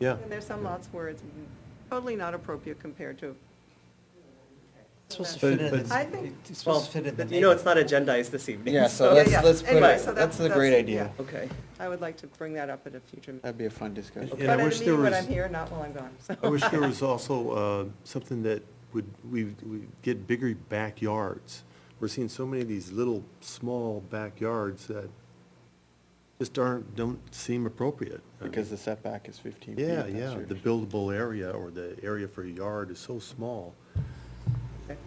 Yeah. And there's some lots where it's totally not appropriate compared to, It's supposed to But- fit in, but- I think- it's- it's supposed to fit in the Well, You know, it's not neighborhood. agendized this evening. Yeah, so Yeah, let's, yeah. let's put Anyway, it, so that- that's a that's- great idea. yeah. Okay. I would like to bring that up at a future meeting. That'd be a fun discussion. And But I at a wish there meeting when was- I'm here, not while I'm gone, so. I wish there was also uh, something that would, we, we get bigger backyards. We're seeing so many of these little, small backyards that just aren't, don't seem appropriate. I mean, Because the setback is fifteen feet. Yeah, that's yeah, your- the buildable area or the area for a yard is so small. Okay.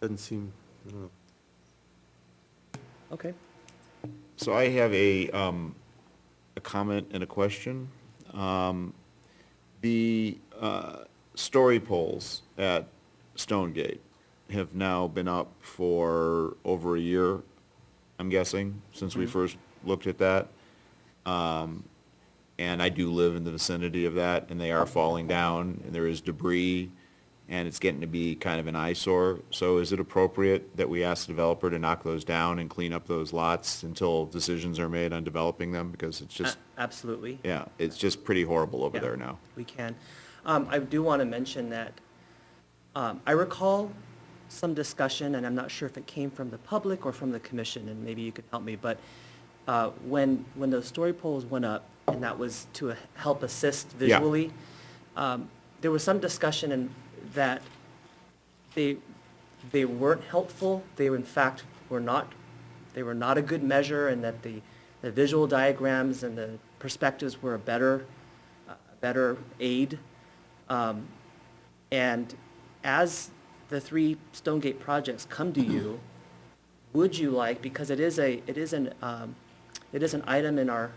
Doesn't seem, I don't know. Okay. So I have a, um, a comment and a question. Um, The, uh, story poles at Stonegate have now been up for over a year, I'm guessing, since we first looked at that. Um, and I do live in the vicinity of that, and they are falling down, and there is debris, and it's getting to be kind of an eyesore. So is it appropriate that we ask the developer to knock those down and clean up those lots until decisions are made on developing them? Because it's just, A- Absolutely. yeah, it's just pretty horrible over Uh. Yeah, there now. We can. Um, I do want to mention that, um, I recall some discussion, and I'm not sure if it came from the public or from the commission, and maybe you could help me, but, uh, when, when those story poles went up, and that was to help assist Yeah. visually, um, there was some discussion in that they, they weren't helpful, they in fact were not, they were not a good measure, and that the, the visual diagrams and the perspectives were a better, a better aid. Um, And as the three Stonegate projects come to you, would you like, because it is a, it is an, um, it is an item in our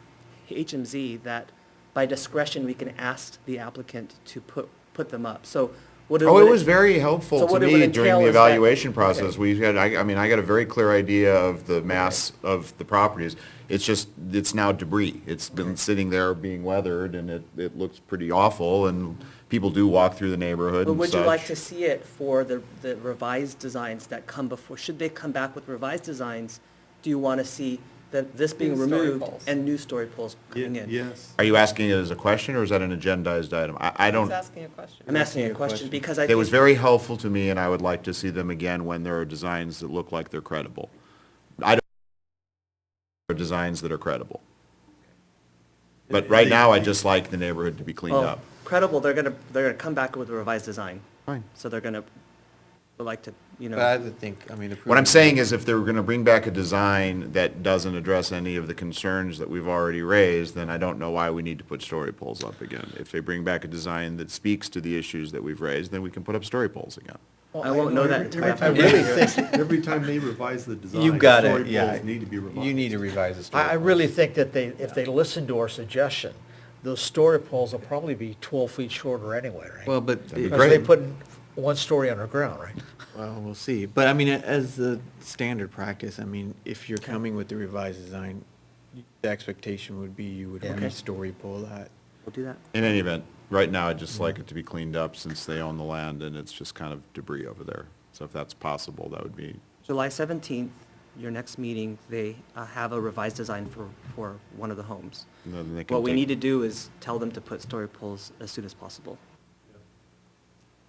HMZ that by discretion, we can ask the applicant to put, put them up, so what? Oh, would it was very helpful so to what it would me during entail the is that- evaluation okay. process. We had, I, I mean, I got a very clear idea of the mass of the properties. It's just, it's now debris. It's been sitting there being weathered and it, it looks pretty awful and people do walk through the neighborhood But and would you like such. to see it for the, the revised designs that come before, should they come back with revised designs? Do you want to see that this being New story removed poles. and new story poles coming Ye- in? yes. Are you asking it as a question or is that an agendized item? I, I I was don't, asking a question. I'm asking you a question because I. it was think- very helpful to me and I would like to see them again when there are designs that look like they're credible. I don't, there are designs that are credible. But right now, I just like the neighborhood to be cleaned well, up. Credible, they're going to, they're going to come back with a revised design. Fine. So they're going to, would like to, you But I know, would think, I mean. What I'm saying is if they were gonna bring back a design that doesn't address any of the concerns that we've already raised, then I don't know why we need to put story poles up again. If they bring back a design that speaks to the issues that we've raised, then we can put up story poles again. I won't know that until I after. really think every time they revise the design. You got it, story yeah. poles Need to be revised. You need to revise the story. I, I really points. think that they, if they listen to our suggestion, those story poles will probably be twelve feet shorter anyway, right? Well, but, be Because they great. put one story underground, right? well, we'll see. But I mean, as the standard practice, I mean, if you're coming with the revised design, the expectation would be you would Yeah. re story pull that. We'll do that. In any event, right now, I'd just like it to be cleaned up since they own the land and it's just kind of debris over there. So if that's possible, that would be, July 17th, your next meeting, they uh, have a revised design for, for one of the homes. then they can What we take- need to do is tell them to put story poles as soon as possible.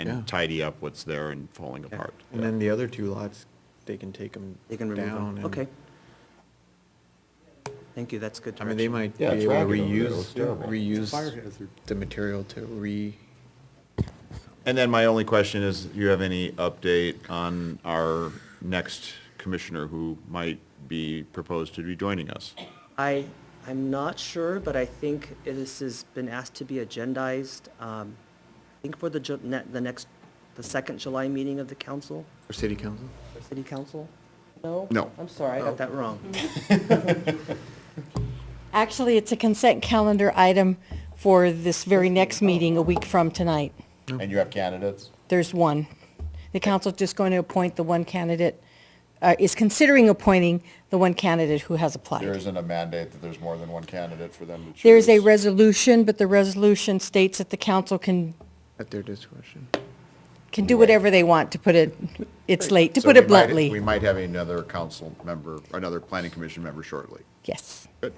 Yeah. and tidy up what's there and falling Okay. apart. And then the other two lots, they can take them They can remove down. and- them. Okay. Thank you, that's good I mean, they direction. might be Yeah, able it's to ragged over there. reuse, It looks terrible. Fire reuse hazard. the material to re, And then my only question is, do you have any update on our next commissioner who might be proposed to be joining us? I, I'm not sure, but I think this has been asked to be agendized, um, I think for the, ju- ne- the next, the second July meeting of the council, or city council. or city council? No? No. I'm sorry, I got that wrong. Actually, it's a consent calendar item for this very next meeting, a week from tonight. And you have candidates? There's one. The council's just going to appoint the one candidate, uh, is considering appointing the one candidate who has applied. a mandate that there's more than one candidate for them to choose. There is a resolution, but the resolution states that the council can, At their discretion. can do whatever they want, to put it, it's late, to put it bluntly. might have another council member, another planning commission member shortly. Yes. Good.